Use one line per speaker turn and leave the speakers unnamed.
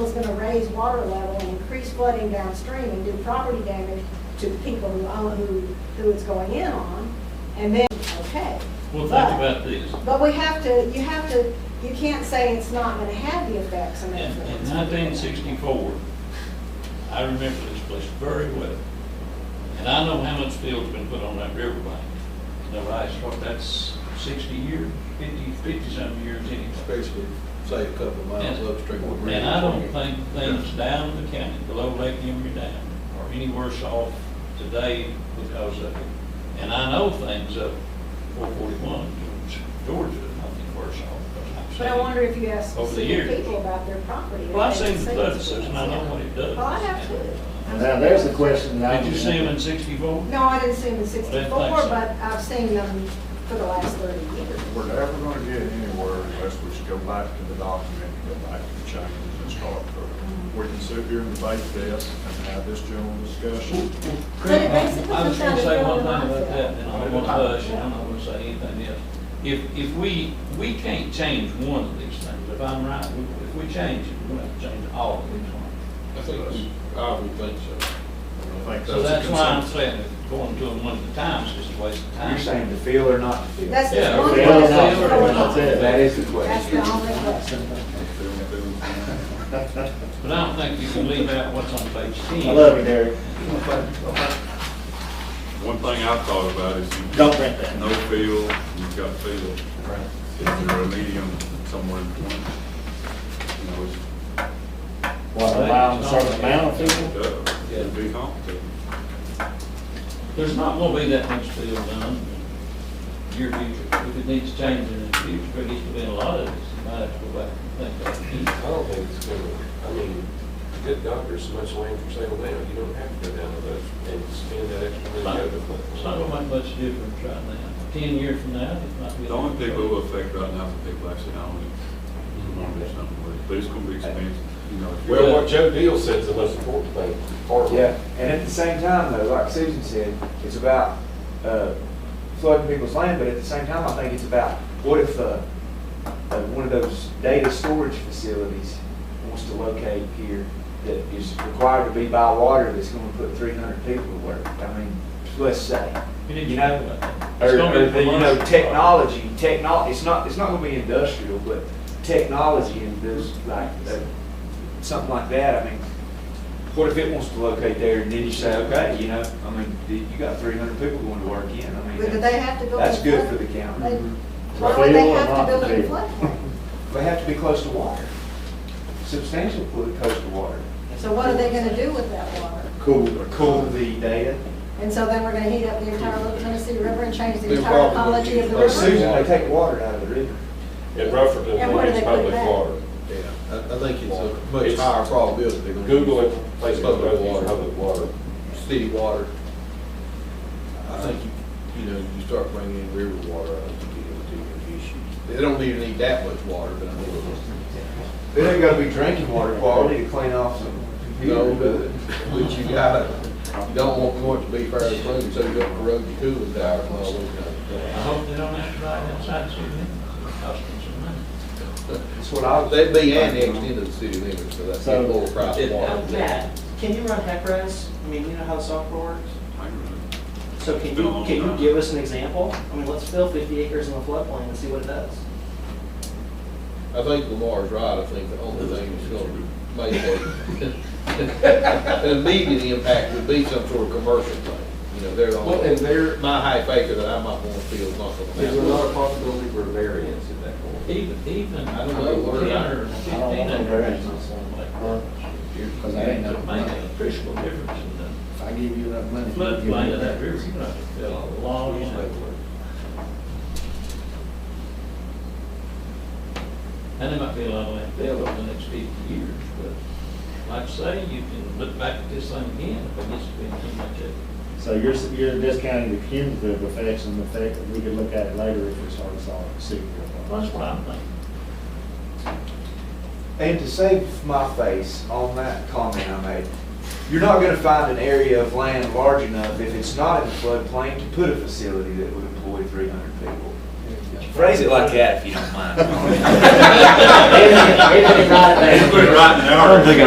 was gonna raise water level and increase flooding downstream and do property damage to the people who own, who, who it's going in on, and then, okay.
Well, think
But-
about this.
But we have to, you have to, you can't say it's not gonna have the effects and
In
influence.
in 1964, I remember this place very well. And I know how much field's been put on that riverbank. The rice, what, that's 60 years, 50, 50-some years anyway.
Especially, say, a couple of miles
Yeah.
upstream. of
And I don't
Greenville.
think things down the county, below Lake Emery Dam, are any worse off today because of it. And I know things up 441, Georgia, I think worse off. because I've
But I
seen it.
wonder if you ask
Over the
specific
years.
people about their property.
Well, I've
if they
seen the
see
flood
it's-
assessment, I know what it does.
Well, I have too.
Now, there's the question that I.
Did you
was
see him
wondering.
in sixty-four?
No, I didn't see them in sixty-four,
Well, that's-
but I've seen them for the last thirty years.
We're never gonna get anywhere unless we should go back to the document, go back to the changes and start from. We can sit here and debate this and have this general discussion.
But it basically
I
comes
was gonna
down to
say
building
one thing
life
about
up.
that, and I want to hush, and I'm not gonna say anything else. If, if we, we can't change one of these things, if I'm right, we- if we change it, we're gonna have to change all of these ones.
I think, we- I would think so.
I think
So
a
that's why I'm
consensus.
saying, that going to them one at a time is just a waste of time.
You're saying to feel or not to feel?
That's the
Yeah,
only
yeah,
Feel or
question.
not
that's
to
the
Oh, feel, that's
only-
it.
That is the
That's
question.
the only question.
But I don't think you can leave out what's on page ten.
I love you, Derek.
One thing I've thought about is you've
Don't
got
print that.
no field, you've got field. Is there a medium somewhere in between? You know, it's,
What, allow them a certain amount of people?
uh, it'd be complicated.
There's not gonna be that much field done in your future, if it needs changing in the future, but it's been a lot of this, you might have to go back and think
I don't think it's gonna, I mean, good doctors, so much land for sale now, you don't have to go down to those and spend that extra money
about
to
it.
go to.
It's not gonna make much difference right now, ten years from now, it might be.
The only people who affect right now is the people actually own it, want to do something with it, but it's gonna be expensive, you know. if you're-
Well, what Joe Deal said is the most important thing, farmland.
Yeah, and at the same time though, like Susan said, it's about uh, flooding people's land, but at the same time, I think it's about, what if uh, uh, one of those data storage facilities wants to locate here that is required to be by water that's gonna put three hundred people to work? I mean, let's say.
You need
you
to
know,
think about that.
Or,
It's
or
gonna be
the, you know,
commercial.
technology, technol, it's not, it's not gonna be industrial, but technology and those, like, uh, something like that, I mean, what if it wants to locate there and then you say, okay, you know, I mean, you you got three hundred people going to work in, I mean.
But do they have to go?
That's
in
good
flood?
for the
They-
county.
Why would they
Feel Mm-hmm. or
have
not
to build in
feel?
floodplain?
They have to be close to water, substantial clo- close to water,
So what are they gonna do with that water?
cool, or cool the data.
And so then we're gonna heat up the entire Little Tennessee River and change the
They're
entire
probably-
ecology of the
Or
river?
Susan, they take water out of the river.
In Rutherford,
And where do they
it's
put
public
that?
water.
Yeah, I, I think it's a much
It's-
higher probability they're gonna. use
Google it, place it,
Public
it's
water,
public water.
city water. I think, you- you know, you start bringing in river water, I think you get into issues. They don't even need that much water, but I mean,
It ain't gotta be drinking water quality to clean off some.
you know, but, but you gotta, you don't want want it to be fairly clean, so you don't corrode your cooling tower and all those kind
I
of things.
hope they don't have to drive outside the city limits, cost them some money.
That's what I was.
They'd be annexed into the city limits, so that's a
So-
lower price
Did-
water.
um, Matt, can you run HECRES? I mean, you know how the software works?
I don't know.
So can
Been a
you,
long
can you
time.
give us an example? I mean, let's fill 50 acres in the floodplain and see what it does.
I think Lamar's right, I think the only thing that's gonna make a- an immediate impact would be some sort of commercial thing, you know, they're
Well, and
on,
they're-
my high factor that I might wanna feel is not gonna
There's
happen.
another possibility for variance at that point.
Even, even, I
I
don't
don't know
know,
where-
ten
I
or
don't
fifteen
want no
acres.
variance on Because I ain't got
It'd Make
money.
a appreciable difference in the
If I give you enough money. you give me
floodplain of that Oh,
that.
river, you know, it's a long way. And there might be a lot of landfill over the next fifty years, but like I say, you can look back at this thing again, if it gets to be too much of it.
So you're, you're discounting the cumulative effects and the fact that we could look at it later if we started solving secret.
Well, That's what I'm thinking.
And to save my face on that comment I made, you're not gonna find an area of land large enough if it's not in the floodplain to put a facility that would employ three hundred people. Phrase it like that if you don't mind.
Even if- even if not,
Put it right in there.
I don't think I